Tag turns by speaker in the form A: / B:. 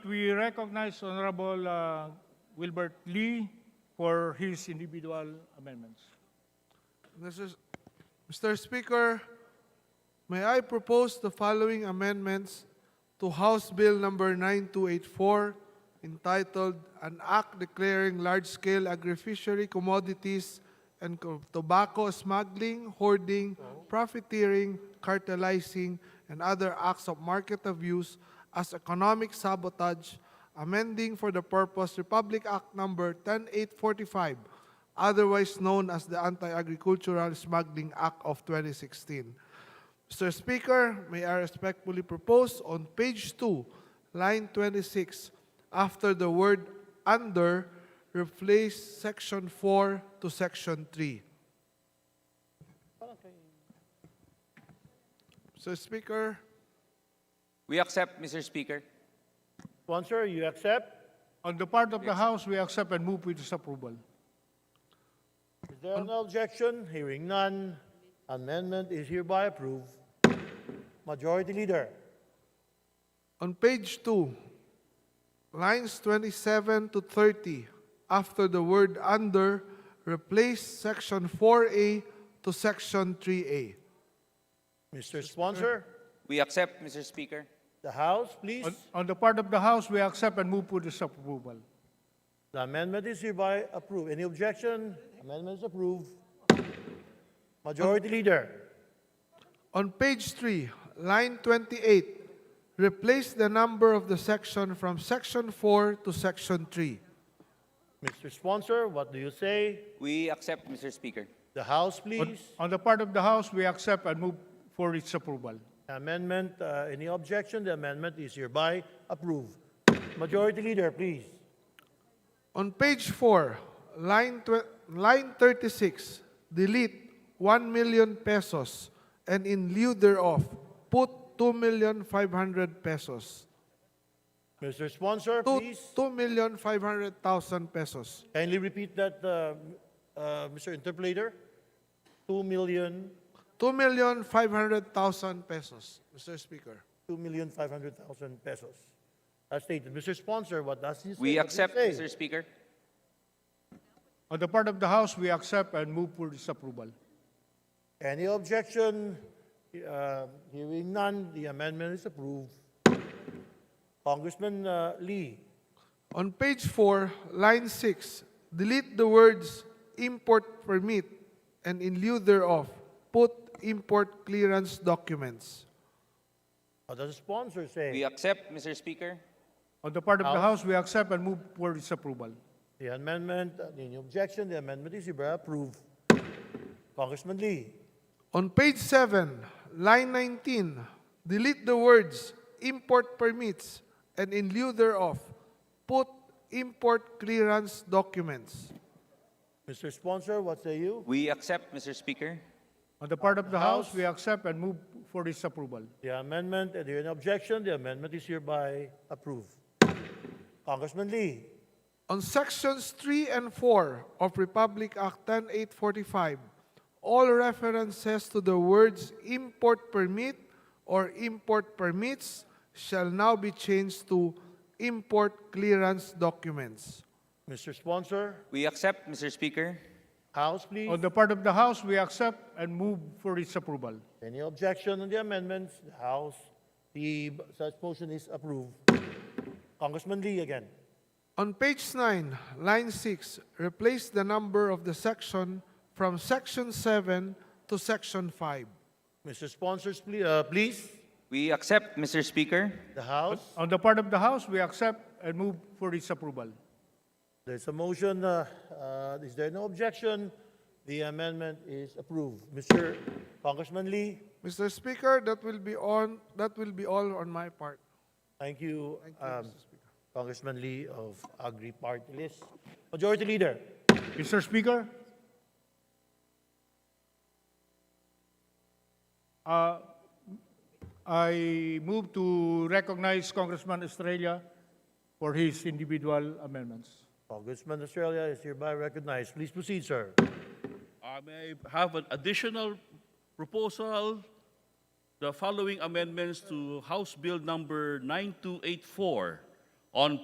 A: we recognize Honorable uh, Wilbert Lee for his individual amendments.
B: Mr. Mr. Speaker, may I propose the following amendments to House Bill Number 9284 entitled An Act Declaring Large-Scale Agri-Fishery Commodities and Co- Tobacco Smuggling, Hoarding, Profiteering, Cartelizing, and Other Acts of Market Abuse as Economic Sabotage, amending for the purpose Republic Act Number 10845 otherwise known as the Anti-Agricultural Smuggling Act of 2016. Mr. Speaker, may I respectfully propose on page 2, line 26, after the word under, replace section 4 to section 3. Mr. Speaker,
C: We accept, Mr. Speaker.
D: Sponsor, you accept?
A: On the part of the House, we accept and move with disapproval.
D: Is there no objection? Hearing none, amendment is hereby approved. Majority Leader,
B: On page 2, lines 27 to 30, after the word under, replace section 4A to section 3A.
D: Mr. Sponsor,
C: We accept, Mr. Speaker.
D: the House, please.
A: On- On the part of the House, we accept and move with disapproval.
D: The amendment is hereby approved. Any objection? Amendment is approved. Majority Leader,
B: On page 3, line 28, replace the number of the section from section 4 to section 3.
D: Mr. Sponsor, what do you say?
C: We accept, Mr. Speaker.
D: The House,
A: On-
D: please.
A: On the part of the House, we accept and move for its approval.
D: Amendment, uh, any objection? The amendment is hereby approved. Majority Leader, please.
B: On page 4, line, tw- line 36, delete 1 million pesos and in lieu thereof, put 2,500,000 pesos.
D: Mr. Sponsor,
B: Two-
D: please.
B: 2,500,000 pesos.
D: Kindly repeat that, uh, uh, Mr. Interpreter. Two million,
B: 2,500,000 pesos, Mr. Speaker.
D: two million five hundred thousand pesos. As stated, Mr. Sponsor, what does he say?
C: We
D: What does he
C: accept,
D: say?
C: Mr. Speaker.
A: On the part of the House, we accept and move for disapproval.
D: Any objection? Uh, Hearing none, the amendment is approved. Congressman uh, Lee,
B: On page 4, line 6, delete the words import permit and in lieu thereof, put import clearance documents.
D: what does the sponsor
C: We
D: say?
C: accept, Mr. Speaker.
A: On the part of the
D: House.
A: House, we accept and move for its approval.
D: The amendment, uh, any objection? The amendment is hereby approved. Congressman Lee,
B: On page 7, line 19, delete the words import permits and in lieu thereof, put import clearance documents.
D: Mr. Sponsor, what say you?
C: We accept, Mr. Speaker.
A: On the part of the House,
D: House.
A: we accept and move for its approval.
D: The amendment, if there is an objection, the amendment is hereby approved. Congressman Lee,
B: On sections 3 and 4 of Republic Act 10845, all references to the words import permit or import permits shall now be changed to import clearance documents.
D: Mr. Sponsor,
C: We accept, Mr. Speaker.
D: House, please.
A: On the part of the House, we accept and move for its approval.
D: Any objection on the amendments? The House, the such motion is approved. Congressman Lee again.
B: On page 9, line 6, replace the number of the section from section 7 to section 5.
D: Mr. Sponsors, please, uh, please.
C: We accept, Mr. Speaker.
D: The House,
A: On the part of the House, we accept and move for its approval.
D: there's a motion, uh, uh, is there no objection? The amendment is approved. Mr. Congressman Lee,
B: Mr. Speaker, that will be on that will be all on my part.
D: thank you. um, Congressman Lee of Agri Party List. Majority Leader,
A: Mr. Speaker? Uh, I move to recognize Congressman Estrella for his individual amendments.
D: Congressman Australia is hereby recognized. Please proceed, sir.
E: I may have an additional proposal, the following amendments to House Bill Number 9284, on